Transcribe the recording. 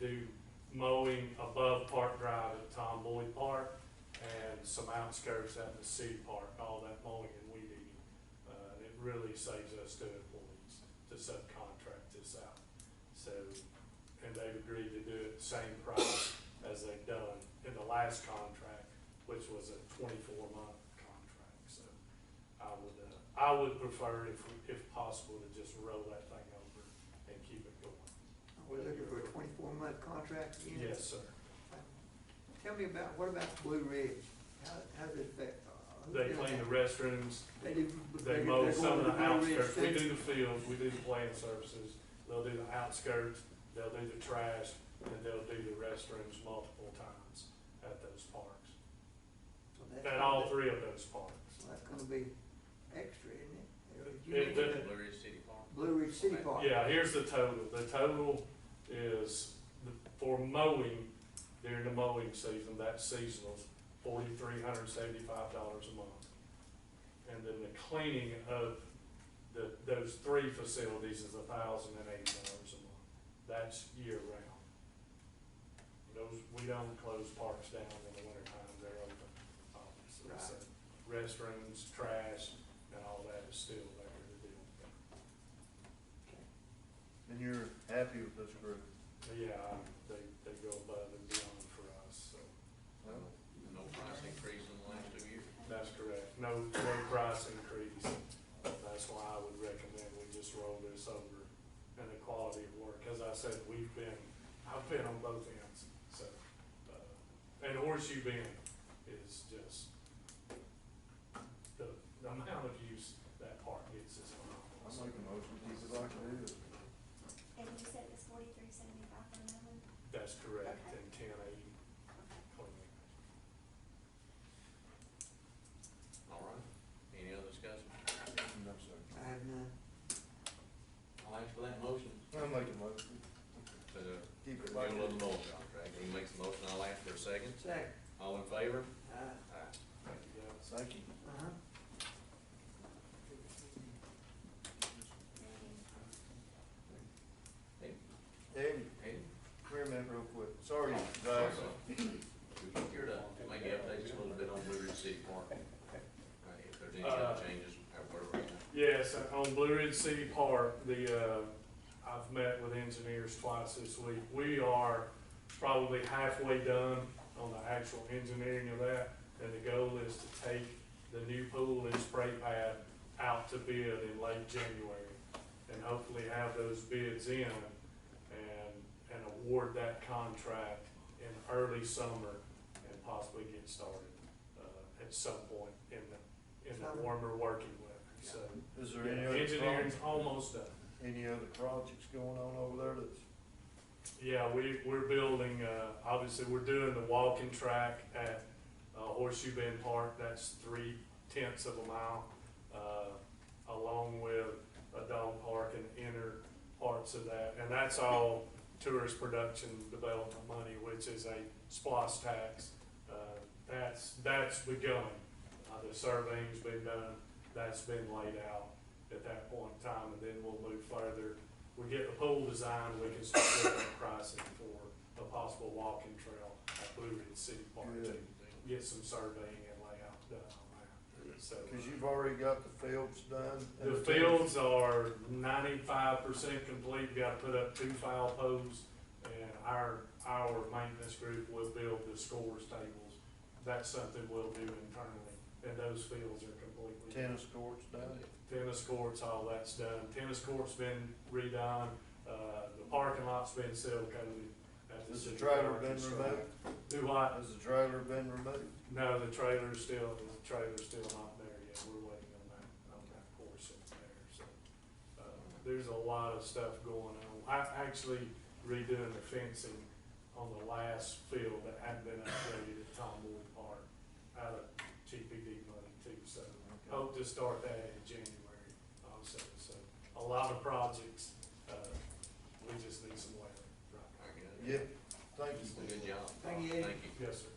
do mowing above Park Drive at Tom Boyd Park and some outskirts out in the city park, all that mowing and weed eating. Uh, and it really saves us two employees to subcontract this out. So, and they've agreed to do it the same price as they've done in the last contract, which was a twenty-four month contract, so. I would, uh, I would prefer if, if possible to just roll that thing over and keep it going. We're looking for a twenty-four month contract again? Yes, sir. Tell me about, what about Blue Ridge? How, how does it affect? uh, They clean the restrooms, They do. they do- mow they're some of going the to Blue Ridge outskirts, we too? do the fields, we do the plant services, they'll do the outskirts, they'll do the trash, and they'll do the restrooms multiple times at those parks, So that's at gonna all be- three of those parks. so That's gonna be extra, isn't it? Or did you It- mention it- the Blue Ridge City Farm. Blue Ridge City Yeah. Park? Yeah, here's the total, the total is, the- for mowing, during the mowing season, that's seasonal, forty-three hundred seventy-five dollars a month. And then the cleaning of the, those three facilities is a thousand and eighty dollars a month, that's year round. Those, we don't close parks down in the winter time, they're open, obviously, so restrooms, trash, and all that is still there to deal with. And you're happy with this group? Yeah, um, they, they go above and beyond for us, so. Well, No price increase in the last two years. That's correct. No, no price increase. That's why I would recommend we just roll this over and the quality of work. As I said, we've been, I've been on both ends, so. uh, And Horseshoe Bend is just, the, the amount of use that park gets is I'm phenomenal. making a motion, keep it like it is. And you said it was forty-three seventy-five for another one? That's correct, and ten eighty Okay. cleaning. All right. Any other discussion? No, sir. I have none. I'll ask for that motion. uh, I'm making a motion, To the keep it like it renewal of is. the mowing contract. He makes the motion, I'll ask for a second. Second, All in favor? uh, Aye. Thank you, guys. Thank you. uh-huh. Eddie, Hey, come here a minute real quick. Sorry, guys. You're done. Maybe update just a little bit on Blue Ridge City Farm. Uh, If there's any other changes, or whatever. Yes, on Blue Ridge City Park, the, uh, I've met with engineers twice this week. We are probably halfway done on the actual engineering of that. And the goal is to take the new pool and spray pad out to bid in late January. And hopefully have those bids in and, and award that contract in early summer and possibly get started, uh, at some point in the, in the warmer working weather, so. Is there any other, Engineering's pro- almost done. any other projects going on over there that's? Yeah, we, we're building, uh, obviously, we're doing the walking track at uh, Horseshoe Bend Park, that's three tenths of a mile. Uh, along with a dog park and inner parts of that, and that's all tourist production development money, which is a splosh tax. Uh, that's, that's begun, uh, the surveying's been done, that's been laid out at that point in time, and then we'll move further we get the pole design, we can start looking at pricing for a possible walking trail at Blue Ridge City Park to Good. get some surveying and layout done on that, so. Cause you've already got the fields done. and The fields are ninety-five percent complete, We gotta put up two foul posts, and our, our maintenance group will build the scores tables. That's something we'll do internally, and those fields are completely. Tennis courts done. tennis courts, all that's done. Tennis court's been redone, uh, the parking lot's been seal coated. at Has the city trailer park been and stuff. removed? Do what? Has the trailer been removed? No, the trailer's still, the trailer's still not there yet, we're waiting on that, on that portion there, so. Uh, there's a lot of stuff going on. I actually redoing the fencing on the last field that hadn't been upgraded at Tom Wood Park out of GPD money too, so. Hope to start that in January also, so a lot of projects, uh, we just need some weather. right Very good. Yeah, thank Well, you. Good job. Thank you. Thank you. now. Yes, sir.